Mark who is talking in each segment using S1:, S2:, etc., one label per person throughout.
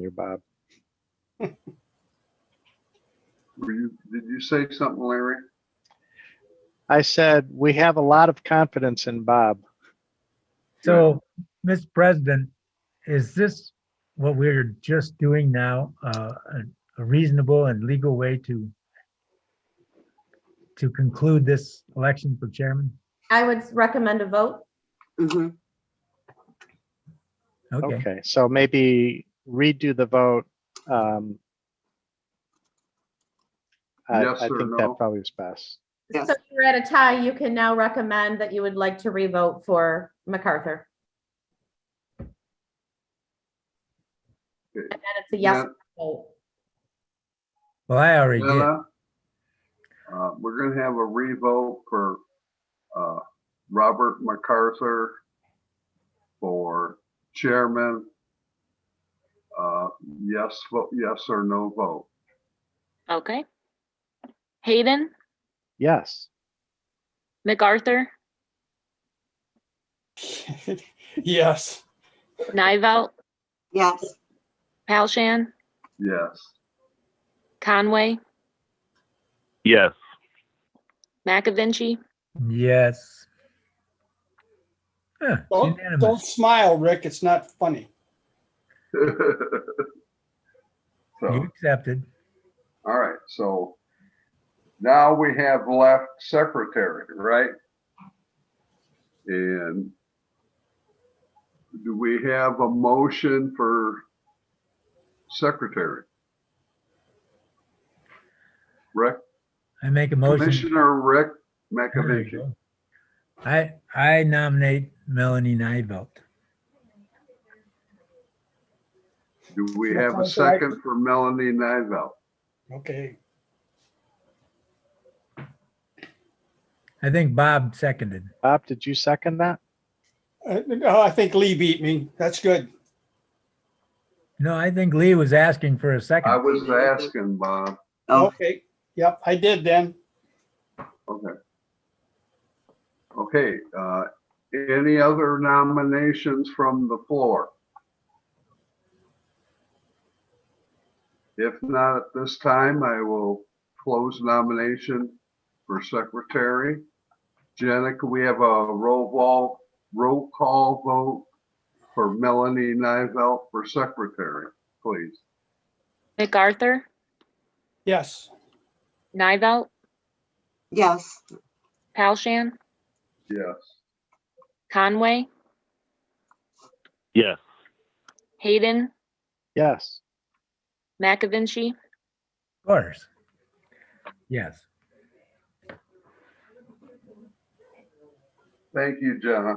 S1: You're Bob.
S2: Were you, did you say something, Larry?
S1: I said, we have a lot of confidence in Bob.
S3: So, Ms. President, is this what we're just doing now, uh, a a reasonable and legal way to to conclude this election for chairman?
S4: I would recommend a vote.
S5: Mm-hmm.
S3: Okay,
S1: Okay, so maybe redo the vote. um, I
S2: Yes
S1: I
S2: or
S1: think that
S2: no?
S1: probably is best.
S5: Yes.
S4: So if you're at a tie, you can now recommend that you would like to revote for MacArthur. And then it's a yes vote.
S3: well, I already did.
S2: Jenna, uh, we're gonna have a revote for, uh, Robert MacArthur for chairman. Uh, yes, vote, yes or no vote.
S6: Okay. Hayden,
S1: Yes.
S6: MacArthur,
S7: yes.
S6: Nivelt,
S5: Yes.
S6: Palshan,
S2: Yes.
S6: Conway,
S8: yes.
S6: McAvinci,
S3: Yes. Huh,
S7: Don't,
S3: Unanimous.
S7: don't smile, Rick. It's not funny.
S3: You
S2: So,
S3: accepted.
S2: all right, so now we have left secretary, right? And do we have a motion for secretary? Rick,
S3: I make a motion.
S2: Commissioner Rick
S3: There you
S2: McAvicky.
S3: go. I, I nominate Melanie Nivelt.
S2: Do we have a second for Melanie Nivell?
S7: Okay.
S3: I think Bob seconded.
S1: Bob, did you second that?
S7: Uh, oh, I think Lee beat me. That's good.
S3: No, I think Lee was asking for a second.
S2: I was asking, Bob.
S5: Oh.
S7: Okay. Yep, I did then.
S2: Okay. Okay, uh, any other nominations from the floor? If not at this time, I will close nomination for secretary. Jenna, can we have a roll call, roll call vote for Melanie Nivell for secretary, please?
S6: MacArthur,
S7: Yes.
S6: Nivelt,
S5: Yes.
S6: Palshan,
S2: Yes.
S6: Conway,
S8: Yes.
S6: Hayden,
S1: Yes.
S6: McAvinci,
S3: Of course. Yes.
S2: Thank you, Jenna.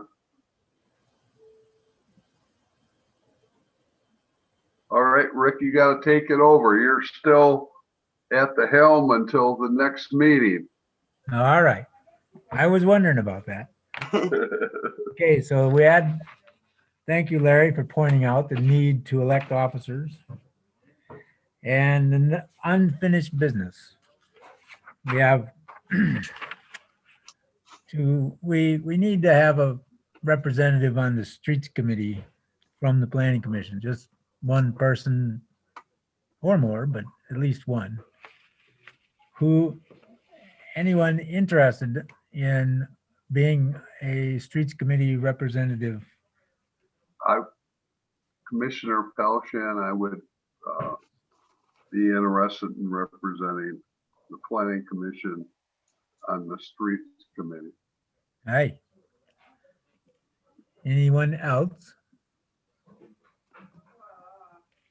S2: All right, Rick, you gotta take it over. You're still at the helm until the next meeting.
S3: All right. I was wondering about that. Okay, so we had, thank you, Larry, for pointing out the need to elect officers. And the n- unfinished business. We have to, we, we need to have a representative on the streets committee from the planning commission, just one person or more, but at least one. Who, anyone interested in being a streets committee representative.
S2: Commissioner Palshan, I would, uh, be interested in representing the planning commission on the streets committee.
S3: Hi. Anyone else?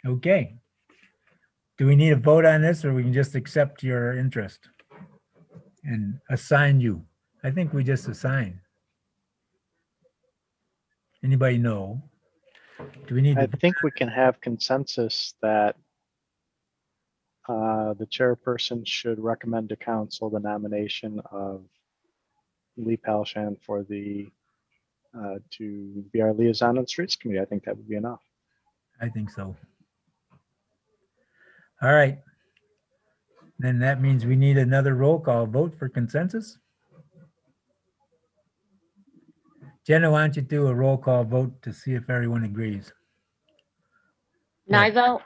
S3: Okay. Do we need a vote on this or we can just accept your interest? And assign you? I think we just assign. Anybody know? Do we need,
S1: I
S3: to
S1: think we can have consensus that uh, the chairperson should recommend to council the nomination of Lee Palshan for the, uh, to be our liaison on the streets committee. I think that would be enough.
S3: I think so. All right. Then that means we need another roll call vote for consensus? Jenna, why don't you do a roll call vote to see if everyone agrees?
S6: Nivo,